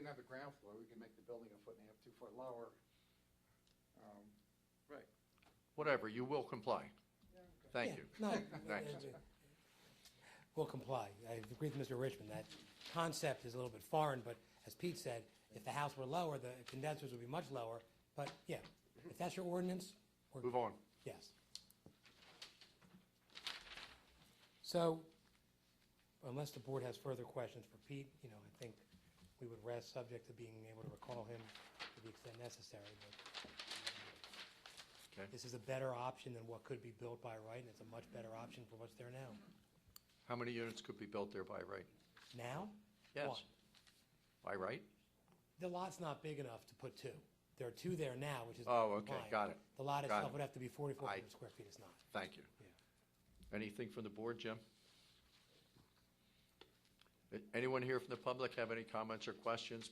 have the ground floor, we can make the building a foot and a half, two foot lower. Um, Right. Whatever, you will comply. Thank Yeah, you. No. Thanks. uh, uh, We'll comply. I agree with Mr. Richmond, that concept is a little bit foreign, but as Pete said, if the house were lower, the condensers would be much lower, but yeah, if that's your ordinance, we're, Move on. yes. So, unless the board has further questions for Pete, you know, I think we would rest subject to being able to recall him to the extent necessary, but Okay. this is a better option than what could be built by right, and it's a much better option for what's there now. How many units could be built there by right? Now? Yes. One. By right? The lot's not big enough to put two. There are two there now, which is. Oh, okay, compliant. got it. The lot Got itself it. would have to be forty-four I- hundred square feet, it's not. Thank you. Anything from the board, Jim? A- Anyone here from the public have any comments or questions?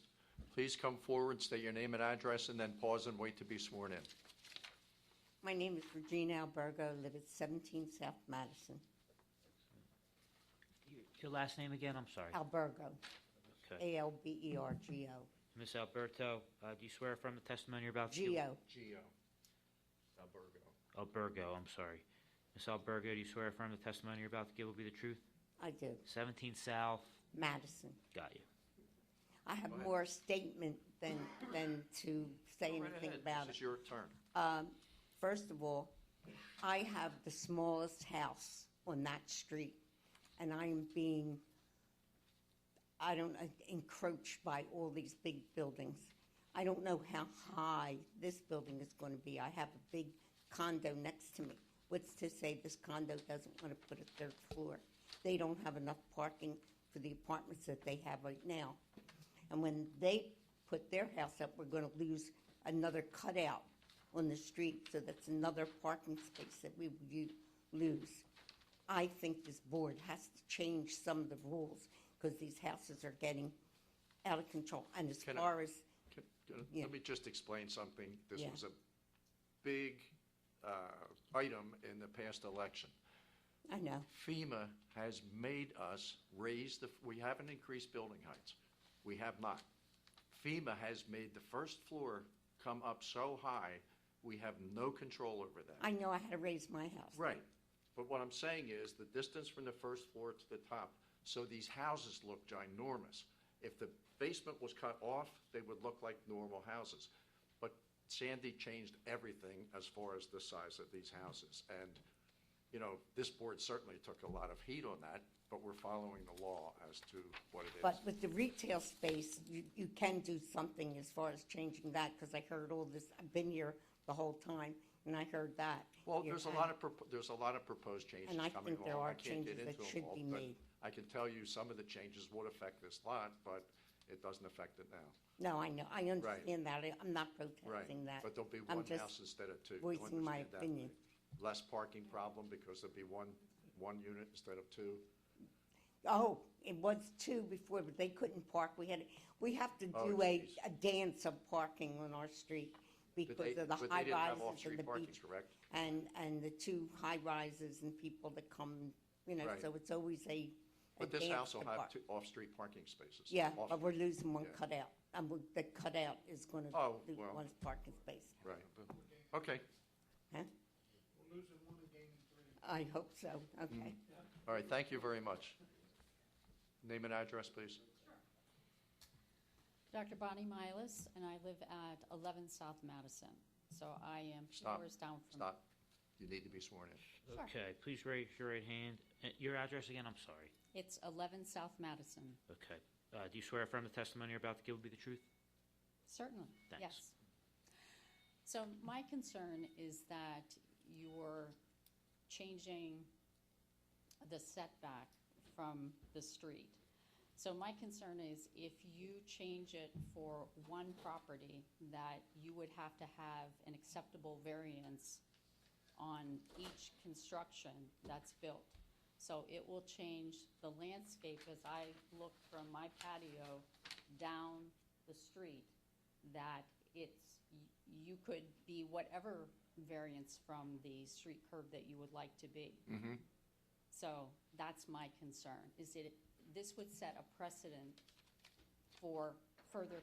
Please come forward, state your name and address, and then pause and wait to be sworn in. My name is Regina Albergo, live at 17 South Madison. Your- Your last name again, I'm sorry. Albergo, Okay. E A-L-B-E-R-G-O, Ms. Alberto, uh, do you swear affirm the testimony you're about to give? G-O, Gio. Albergo. Albergo, I'm sorry. Ms. Albergo, do you swear affirm the testimony you're about to give will be the truth? I do, 17 South, Madison. got you. I have Go ahead. more statement than, than to say anything about This it. is your turn. Um, First of all, I have the smallest house on that street, and I am being, I don't, know, encroached by all these big buildings. I don't know how high this building is going to be. I have a big condo next to me. What's to say this condo doesn't want to put a third floor? They don't have enough parking for the apartments that they have right now. And when they put their house up, we're going to lose another cutout on the street, so that's another parking space that we would u- lose. I think this board has to change some of the rules, because these houses are getting out of control. And as Can I- far as, Can- can- Yeah. Let me just explain something. This Yeah. was a big uh, item in the past election. I know, FEMA has made us raise the, we haven't increased building heights. We have not. FEMA has made the first floor come up so high, we have no control over that. I know I had to raise my house. Right. But what I'm saying is the distance from the first floor to the top, so these houses look ginormous. If the basement was cut off, they would look like normal houses. But Sandy changed everything as far as the size of these houses. And, you know, this board certainly took a lot of heat on that, but we're following the law as to what it is. But with the retail space, you, you can do something as far as changing that, because I heard all this, I've been here the whole time, and I heard that. Well, You're there's a kind- lot of, propo- there's a lot of proposed changes And I coming along. think there are I can't get changes that into 'em should all, be but made. I can tell you some of the changes would affect this lot, but it doesn't affect it now. No, I know, I understand that, I- I'm not protesting that. But there'll be I'm one just- house instead of two. You voicing my understand that, opinion. right? Less parking problem because there'll be one, one unit instead of two. Oh, it was two before, but they couldn't park. We had, we have to Oh, do a, geez. a dance of parking on our street But they- because of the but they high didn't have rises and off-street the parking, beach. correct? And, and the two high rises and people that come, you know, Right. so it's always a, a But this dance house to will have park. two off-street parking spaces. Yeah, Off- but we're losing one yeah. cutout. And we- the cutout is gonna Oh, lose well. one parking space, Right. Okay, huh? I hope so, okay. all right, thank you very much. Name and address, please. Dr. Bonnie Milas, and I live at 11 South Madison. So I am two Stop. doors down from. Stop. You need to be sworn in. Sure. Okay, please raise your right hand. Uh, Your address again, I'm sorry. It's 11 South Madison, Okay. Uh, Do you swear affirm the testimony you're about to give will be the truth? certainly, Thanks. yes. So my concern is that you're changing the setback from the street. So my concern is if you change it for one property, that you would have to have an acceptable variance on each construction that's built. So it will change the landscape as I look from my patio down the street, that it's, y- you could be whatever variance from the street curb that you would like to be. Mm-hmm. So that's my concern, is that it- this would set a precedent for further